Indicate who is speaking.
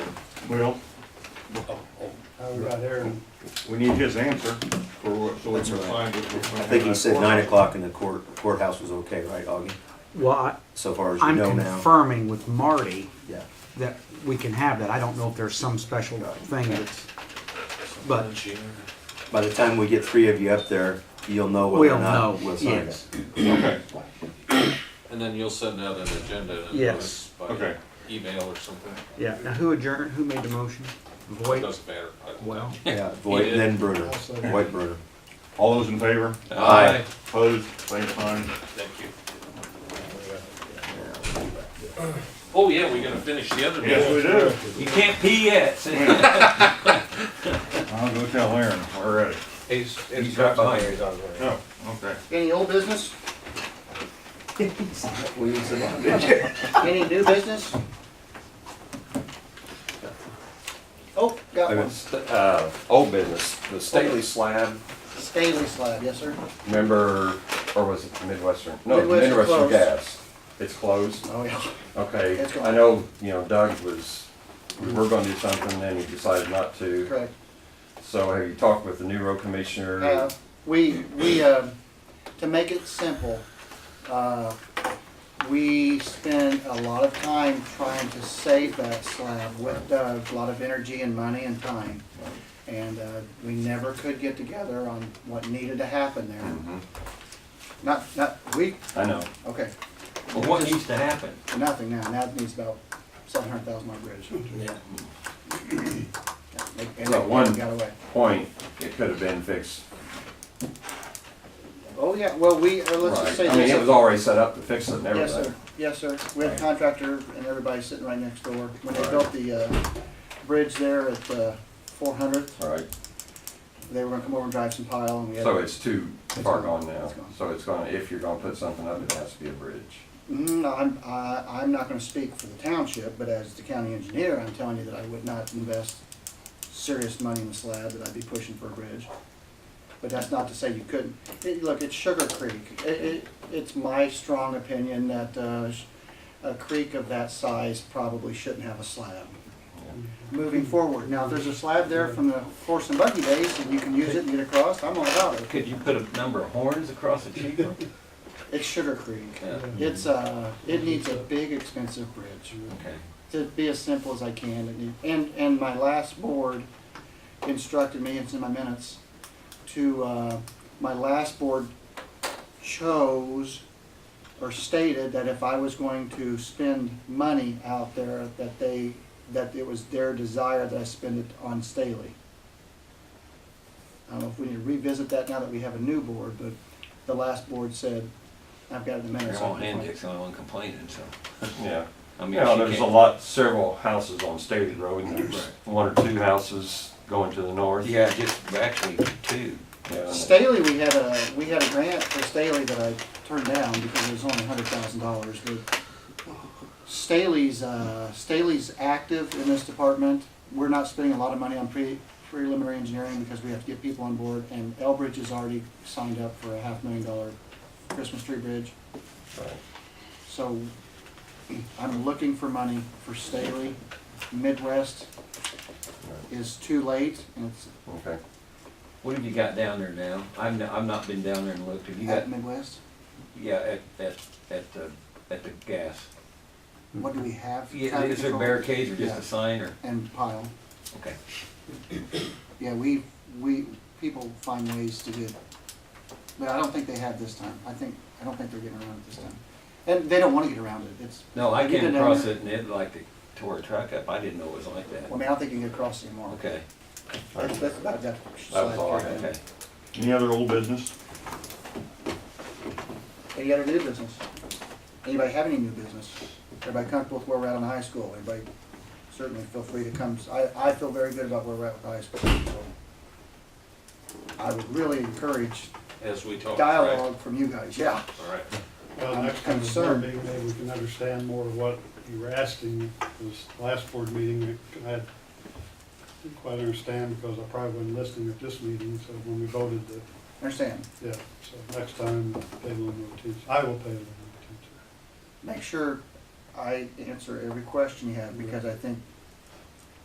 Speaker 1: Well,
Speaker 2: Over by there, and
Speaker 1: we need his answer for what, so we
Speaker 3: That's
Speaker 1: can
Speaker 3: right.
Speaker 1: find what we're.
Speaker 3: I think he said nine o'clock and the court, courthouse was okay, right, Augie?
Speaker 4: Well, I-
Speaker 3: So far as you
Speaker 4: I'm
Speaker 3: know now?
Speaker 4: confirming with Marty
Speaker 3: Yeah.
Speaker 4: that we can have that. I don't know if there's some special thing that's, but
Speaker 3: By the time we get three of you up there, you'll know whether
Speaker 4: we'll
Speaker 3: or
Speaker 4: know,
Speaker 3: not we'll sign it.
Speaker 4: yes.
Speaker 1: Okay,
Speaker 5: And then you'll send out an agenda and
Speaker 4: Yes.
Speaker 5: notice by
Speaker 1: Okay.
Speaker 5: email or something.
Speaker 4: Yeah, now who adjourned, who made the motion?
Speaker 5: It
Speaker 4: Voight?
Speaker 5: doesn't matter.
Speaker 4: Well,
Speaker 3: Yeah, Voight,
Speaker 5: did.
Speaker 3: then Bruder, Voight, Bruder.
Speaker 1: all those in favor?
Speaker 3: Aye.
Speaker 1: Opposed, same sign.
Speaker 5: Thank you. Oh, yeah, we gotta finish the other
Speaker 1: Yes, we
Speaker 5: business.
Speaker 1: do.
Speaker 5: You can't pee yet.
Speaker 1: I'll go tell Aaron, we're ready.
Speaker 5: He's,
Speaker 1: He's right behind Oh, okay.
Speaker 6: Any old business?
Speaker 3: We use it on-
Speaker 6: Any new business? Oh, got one.
Speaker 7: Uh, old business, the Staley slab,
Speaker 6: Staley slab, yes, sir.
Speaker 7: remember, or was it Midwestern? No, it was
Speaker 6: Midwestern
Speaker 7: Midwestern
Speaker 6: closed.
Speaker 7: Gas. It's closed?
Speaker 6: Oh, yeah.
Speaker 7: Okay,
Speaker 6: It's gone.
Speaker 7: I know, you know, Doug was, we were gonna do something, and he decided not to.
Speaker 6: Correct.
Speaker 7: So have you talked with the new road commissioner?
Speaker 6: Uh, We, we, um, to make it simple, uh, we spend a lot of time trying to save that slab with uh, a lot of energy and money and time. And uh, we never could get together on what needed to happen
Speaker 5: Mm-hmm.
Speaker 6: there. Not, not, we,
Speaker 7: I know,
Speaker 6: okay,
Speaker 5: Well, what needs to happen?
Speaker 6: nothing now, now it needs about seven hundred thousand dollar bridge. Yeah. And
Speaker 7: So
Speaker 6: that
Speaker 7: one-
Speaker 6: one got away.
Speaker 7: point, it could have been fixed.
Speaker 6: Oh, yeah, well, we, uh, let's just
Speaker 7: Right,
Speaker 6: say
Speaker 7: I mean,
Speaker 6: this.
Speaker 7: it was already set up to fix it and
Speaker 6: Yes, sir,
Speaker 7: everything.
Speaker 6: yes, sir. We have a contractor and everybody sitting right next door. When they built the, uh, bridge there at, uh, four hundredth,
Speaker 7: All right,
Speaker 6: they were gonna come over and drive some pile and we had.
Speaker 7: so it's too far gone now,
Speaker 6: It's gone.
Speaker 7: so it's gonna, if you're gonna put something up, it has to be a bridge.
Speaker 6: Mm, I'm, I, I'm not gonna speak for the township, but as the county engineer, I'm telling you that I would not invest serious money in the slab, that I'd be pushing for a bridge. But that's not to say you couldn't. It, look, it's Sugar Creek. It, it, it's my strong opinion that, uh, sh- a creek of that size probably shouldn't have a slab. Moving forward, now, if there's a slab there from the horse and buggy days, and you can use it and get across, I'm all about it.
Speaker 5: Could you put a number of horns across the cheek?
Speaker 6: It's Sugar Creek.
Speaker 5: Yeah.
Speaker 6: It's, uh, it needs a big, expensive bridge.
Speaker 5: Okay.
Speaker 6: to be as simple as I can. And, and, and my last board instructed me, it's in my minutes, to, uh, my last board chose or stated that if I was going to spend money out there, that they, that it was their desire that I spend it on Staley. I don't know if we need to revisit that now that we have a new board, but the last board said, I've got it in the minutes.
Speaker 5: Well, Andick's the only one complaining, so.
Speaker 7: Yeah.
Speaker 5: I mean,
Speaker 7: Yeah,
Speaker 5: she
Speaker 7: there's a
Speaker 5: can't-
Speaker 7: lot, several houses on Staley Road, and there's one or two houses going to the north.
Speaker 5: Yeah, just actually two.
Speaker 7: Yeah.
Speaker 6: Staley, we had a, we had a grant for Staley that I turned down because it was only hundred thousand dollars, but Staley's, uh, Staley's active in this department. We're not spending a lot of money on pre, preliminary engineering because we have to get people on board, and Elbridge is already signed up for a half million dollar Christmas tree bridge.
Speaker 7: Right.
Speaker 6: So I'm looking for money for Staley. Midwest is too late, and it's
Speaker 7: Okay.
Speaker 5: What have you got down there now? I'm, n- I've not been down there and looked. Have you got,
Speaker 6: at Midwest.
Speaker 5: yeah, at, at, at the, at the gas?
Speaker 6: What do we have?
Speaker 5: Yeah,
Speaker 6: Traffic
Speaker 5: is there
Speaker 6: control?
Speaker 5: barricades or just
Speaker 6: Yeah.
Speaker 5: a sign or,
Speaker 6: and pile.
Speaker 5: okay.
Speaker 6: Yeah, we, we, people find ways to get, but I don't think they have this time. I think, I don't think they're getting around it this time. And they don't wanna get around it, it's,
Speaker 5: No, I
Speaker 6: Have you
Speaker 5: came
Speaker 6: been down
Speaker 5: across
Speaker 6: there?
Speaker 5: it and it like it tore a truck up. I didn't know it was like
Speaker 6: I
Speaker 5: that.
Speaker 6: mean, I don't think you can get across anymore.
Speaker 5: Okay,
Speaker 6: That's, that's about that.
Speaker 7: That was all I had.
Speaker 5: okay.
Speaker 1: Any other old business?
Speaker 6: Any other new business? Anybody have any new business? Everybody comfortable with where we're at on high school? Everybody certainly feel free to come. I, I feel very good about where we're at with high school, so. I would really encourage
Speaker 5: As we
Speaker 7: Oh,
Speaker 5: talk.
Speaker 6: dialogue from you guys, yeah.
Speaker 5: All right.
Speaker 2: well,
Speaker 6: I'm
Speaker 2: next time it's more
Speaker 6: concerned.
Speaker 2: big, maybe we can understand more of what you were asking. This last board meeting, I had- didn't quite understand because I probably wasn't listening at this meeting, so when we voted that,
Speaker 6: Understand?
Speaker 2: yeah, so next time, pay a little more attention. I will pay a little more attention.
Speaker 6: make sure I answer every question you have, because I think